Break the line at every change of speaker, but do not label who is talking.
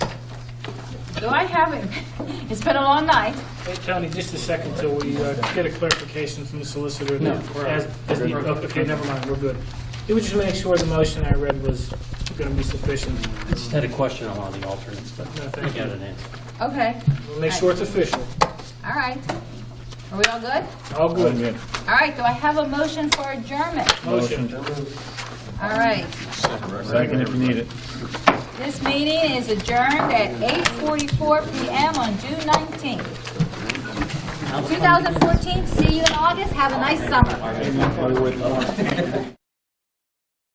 No, I haven't. It's been a long night.
Hey, Tony, just a second till we uh, get a clarification from the solicitor.
No.
As- as the- oh, Okay, never mind, we're good. Did we just make sure the motion I read was going to be sufficient?
I just had a question on one of the alternates, but
No,
I
thank
got
you.
an answer.
Okay,
We'll make sure it's official.
all right. Are we all good?
All good.
All right, do I have a motion for adjournment?
Motion.
All right,
Second if you need it.
this meeting is adjourned at 8:44 PM on June 19th. 2014, see you in August. Have a nice summer.